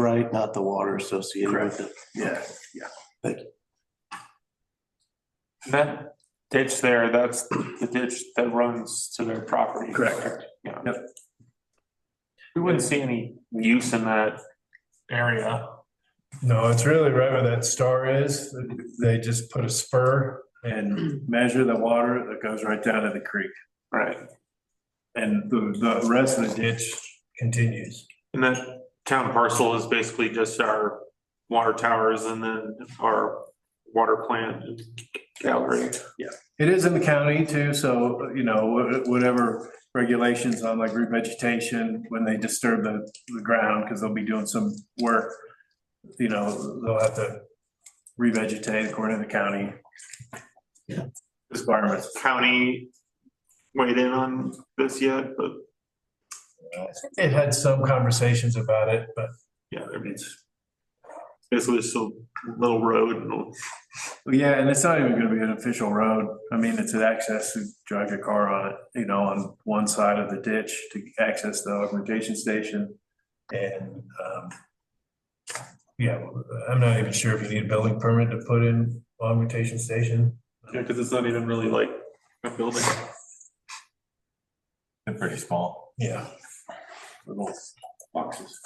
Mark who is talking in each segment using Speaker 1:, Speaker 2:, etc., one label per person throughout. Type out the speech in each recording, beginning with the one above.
Speaker 1: right? Not the water associated with it.
Speaker 2: Yeah.
Speaker 3: That ditch there, that's the ditch that runs to their property.
Speaker 2: Correct.
Speaker 3: Yeah.
Speaker 2: Yep.
Speaker 3: We wouldn't see any use in that area.
Speaker 2: No, it's really right where that star is. They just put a spur and measure the water that goes right down to the creek.
Speaker 3: Right.
Speaker 2: And the, the rest of the ditch continues.
Speaker 3: And that town parcel is basically just our water towers and then our water plant and gallery.
Speaker 2: It is in the county too, so, you know, wh- whatever regulations on like revegetation, when they disturb the, the ground, because they'll be doing some work. You know, they'll have to revegetate according to the county. Requirements.
Speaker 3: County weighed in on this yet, but
Speaker 2: They had some conversations about it, but
Speaker 3: yeah, I mean, it's basically just a little road and
Speaker 2: Well, Yeah, and it's not even gonna be an official road. I mean, it's an access to drive your car on it, you know, on one side of the ditch to access the augmentation station. And, um, yeah, I'm not even sure if you need a building permit to put in augmentation station.
Speaker 3: Yeah, because it's not even really like a building.
Speaker 2: They're pretty small. Yeah. Little boxes.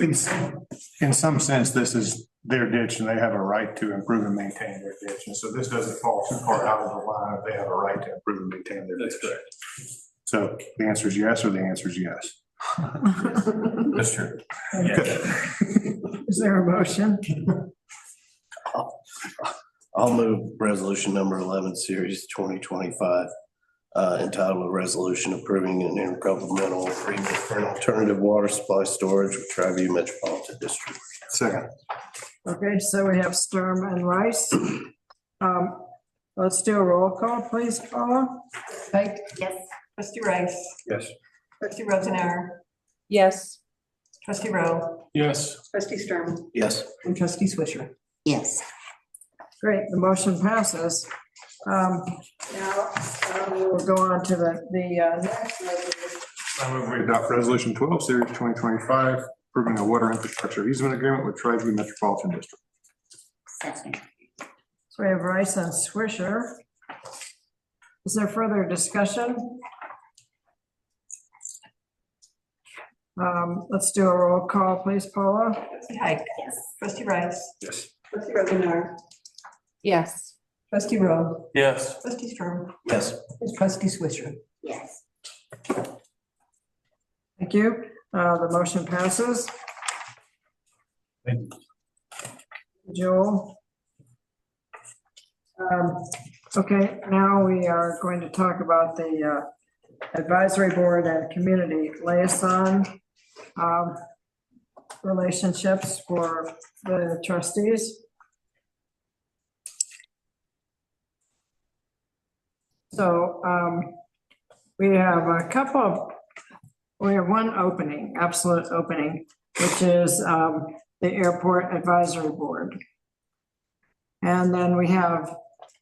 Speaker 4: In, some- in some sense, this is their ditch and they have a right to improve and maintain their ditch. And so this doesn't fall too far out of the line. if They have a right to improve and maintain their ditch. So the answer is yes, or the answer is yes.
Speaker 2: That's true.
Speaker 5: Is there a motion?
Speaker 1: I'll move resolution number eleven, series twenty twenty-five. Uh, entitled a resolution approving an intergovernmental agreement for an alternative water supply storage with Triview Metropolitan District.
Speaker 4: Second,
Speaker 5: Okay, so we have Sturm and Rice. Um, let's do a roll call, please, Paula.
Speaker 6: Right? Yes. Trustee Rice,
Speaker 4: yes.
Speaker 6: trustee Rosenauer,
Speaker 7: Yes.
Speaker 6: trustee Rowe,
Speaker 2: Yes.
Speaker 6: trustee Sturman,
Speaker 1: Yes.
Speaker 6: and trustee Swisher. Yes.
Speaker 5: Great, the motion passes. Um, now, um, we'll go on to the, the, uh, next resolution.
Speaker 4: I move we adopt resolution twelve, series twenty twenty-five, approving a water infrastructure easement agreement with Triview Metropolitan District.
Speaker 5: So we have Rice and Swisher. Is there further discussion? Um, let's do a roll call, please, Paula.
Speaker 6: Trustee Heck. Yes. Trustee Rice,
Speaker 4: Yes.
Speaker 6: trustee Rosenauer,
Speaker 7: Yes.
Speaker 6: trustee Rowe,
Speaker 3: Yes.
Speaker 6: trustee Sturman,
Speaker 1: Yes.
Speaker 6: and trustee Swisher.
Speaker 7: Yes.
Speaker 5: Thank you. Uh, the motion passes.
Speaker 2: Thank
Speaker 5: Joel. Um, okay, now we are going to talk about the uh, advisory board and community liaison um, relationships for the trustees. So, um, we have a couple of we have one opening, absolute opening, which is um, the Airport Advisory Board. And then we have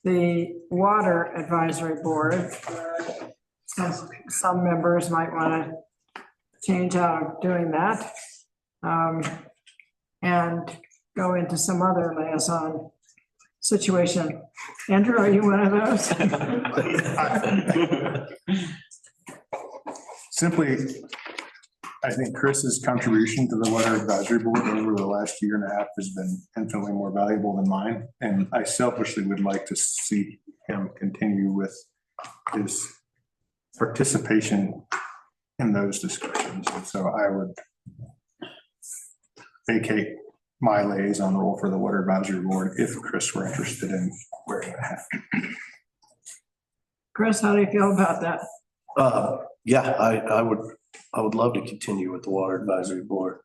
Speaker 5: the Water Advisory Board. where Some, some members might want to change out of doing that. um, And go into some other liaison situation. Andrew, are you one of those?
Speaker 4: Simply, I think Chris's contribution to the water advisory board over the last year and a half has been infinitely more valuable than mine. And I selfishly would like to see him continue with his participation in those discussions. And so I would vacate my liaison role for the water advisory board if Chris were interested in wearing that hat.
Speaker 5: Chris, how do you feel about that?
Speaker 1: Uh, yeah, I, I would, I would love to continue with the water advisory board.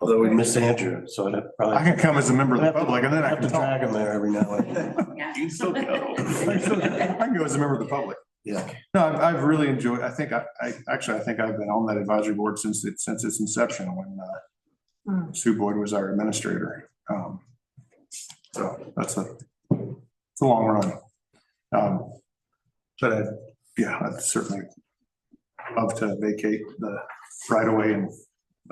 Speaker 1: Although we miss Andrew, so I'd have probably.
Speaker 4: I can come as a member of the
Speaker 1: I'd have to-
Speaker 4: public and then I
Speaker 1: I'd have
Speaker 4: can
Speaker 1: to
Speaker 4: talk.
Speaker 1: drag him there every now and then.
Speaker 3: You still go.
Speaker 4: I can go as a member of the public.
Speaker 1: Yeah.
Speaker 4: No, I've, I've really enjoyed, I think, I, I, actually, I think I've been on that advisory board since it, since its inception when,
Speaker 5: Hmm.
Speaker 4: uh, Sue Boyd was our administrator. Um, so that's a, it's a long run. Um, but I, yeah, I'd certainly love to vacate the right away and